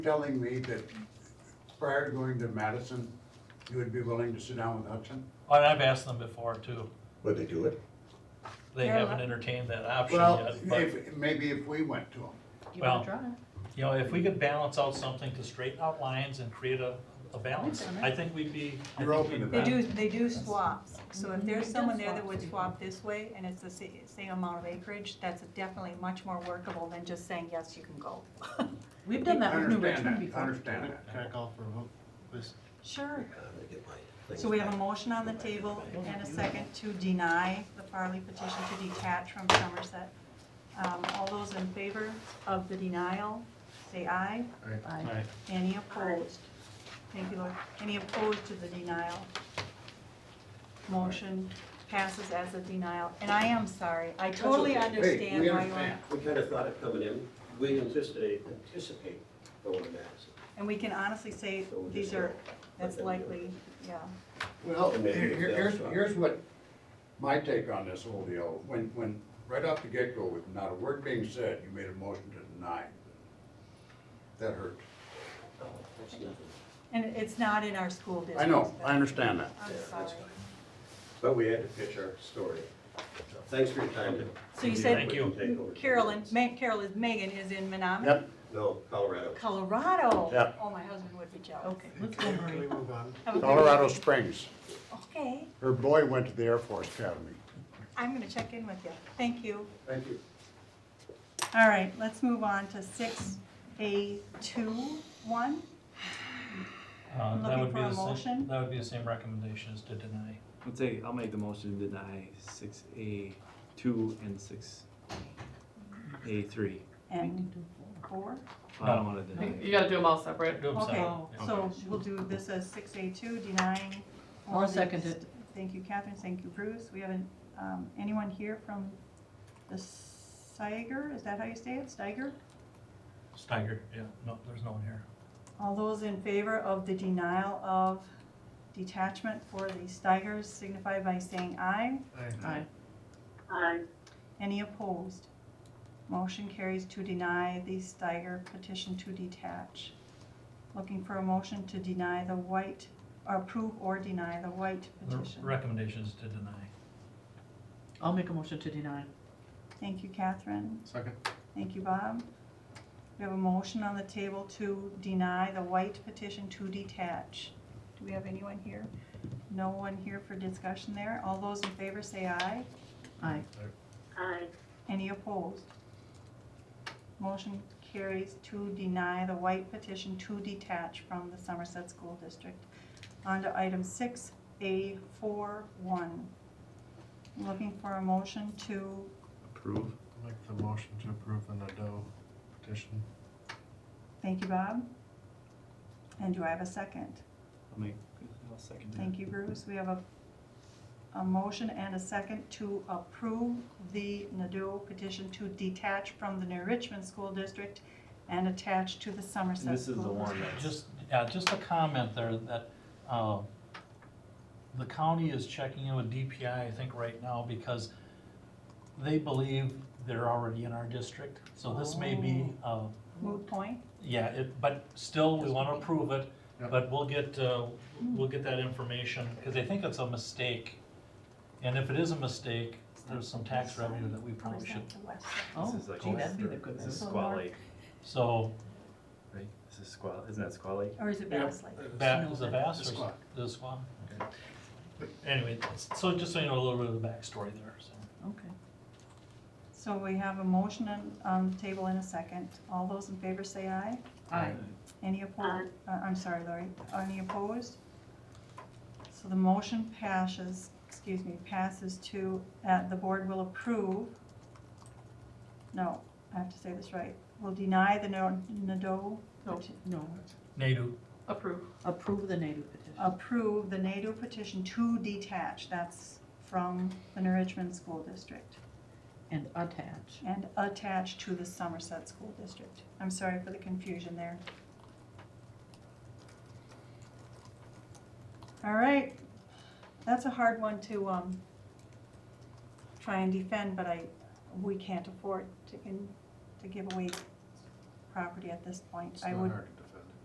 telling me that prior to going to Madison, you would be willing to sit down with Hudson? And I've asked them before too. Would they do it? They They're haven't allowed- entertained that option Well, yet. But, if, maybe if we went to him, You Well, wanna draw it? you know, if we could balance out something to straighten out lines and create a, a balance, Okay. I think we'd be. I You're think open to we'd They that. be- do, they do swaps, so if there's Mhm. someone there that would Swap. swap this way, and it's the sa- same amount of acreage, that's definitely much more workable than just saying, yes, you can go. We've done that I with New understand Richmond that, I before. understand that. Can I call for a vote, please? Sure. I'm gonna Uh, get my things So we have a back. motion on the table and a second to deny the Farley petition to detach from Somerset. Um, all those in favor of the denial, say aye. Aye. Alright. Any opposed? Thank you, Lord. Any opposed to the denial? Motion passes as a denial. And I am sorry. I totally okay. Hey, we understand why you are. understand. We kind of thought of coming in, we anticipated, anticipate going to Madison. And we can honestly say So we'll these just are, go. that's likely, yeah. Well, And maybe here- if here's, that's- here's what my take on this whole deal, when, when, right off the get-go, with not a word being said, you made a motion to deny. That hurt. Oh, that's nothing. And it's not in our school district. I know, I understand that. I'm Yeah, that's sorry. fine. But we had to pitch our story. So Thanks for your time. So you said Thank you. Carolyn, Ma- Carol is Megan is in Menominee, Yep, No, Colorado. Colorado. Yep. Oh, my husband would be jealous. Okay, let's go, Can Marie. we move on? Have a good- Colorado Springs. Okay, Her boy went to the Air Force Academy. I'm gonna check in with you. Thank you. Thank you. All right, let's move on to six A two one. Uh, that Looking would be for a the same- motion? That would be the same recommendation as to deny. I'll take, I'll make the motion to deny six A two and six A three. And four? I don't wanna deny. it. You gotta do them all separate. Do them Okay, Oh. separate. Yeah. so we'll do this as six A two, denying. all I'll the- second it. Thank you, Catherine, thank you, Bruce. We haven't, um, anyone here from the Steiger, is that how you say it, Steiger? Steiger, yeah, no, there's no one here. All those in favor of the denial of detachment for the Steigers signify by saying aye. Aye. Any opposed? Motion carries to deny the Steiger petition to detach. Looking for a motion to deny the White, or approve or deny the White The petition. recommendation is to deny. I'll make a motion to deny. Thank you, Catherine. Second. Thank you, Bob. We have a motion on the table to deny the White petition to detach. Do we have anyone here? No one here for discussion there. All those in favor say aye. Aye. Any opposed? Motion carries to deny the white petition to detach from the Somerset School District. On to item six, A four one. Looking for a motion to, Approve. I'll Make the motion to approve the Nadeau petition. thank you, Bob. And do I have a second? I'll make, I'll second that. Thank you, Bruce. We have a, a motion and a second to approve the Nadeau petition to detach from the New Richmond School District and attach to the Somerset School This is the one District. that's. Just, yeah, just a comment there that, uh, the county is checking in with DPI, I think, right now because they believe they're already in our district. So this may be, uh, Moot point? yeah, it, but still, we want to approve it, Yep. but we'll get, uh, we'll get that information because they think it's a mistake. And if it is a mistake, there's some tax revenue that we probably should, Or is that the west Oh, This is like gee, that'd be Western- the good This is one. Squaw Lake, so right? This is Squaw, isn't that Squaw Lake? side? Or is it Bass Lake? that is a No, vast. the squad. The squad, okay. Anyway, so just so you know a little bit of the backstory there, so. Okay. So we have a motion on, on the table in a second. All those in favor say aye. Aye. Any opposed? Uh, I'm sorry, Lori. Any opposed? So the motion passes, excuse me, passes to, uh, the board will approve. No, I have to say this right. Will deny the no- Nadeau, No, no. Um, Nadu, Approve. Approve the native petition. approve the Nadeau petition to detach. That's from the New Richmond School District. And attach. and attached to the Somerset School District. I'm sorry for the confusion there. All right, that's a hard one to, um, try and defend, but I, we can't afford to, in- to give away property at this point. It's I not would, hard to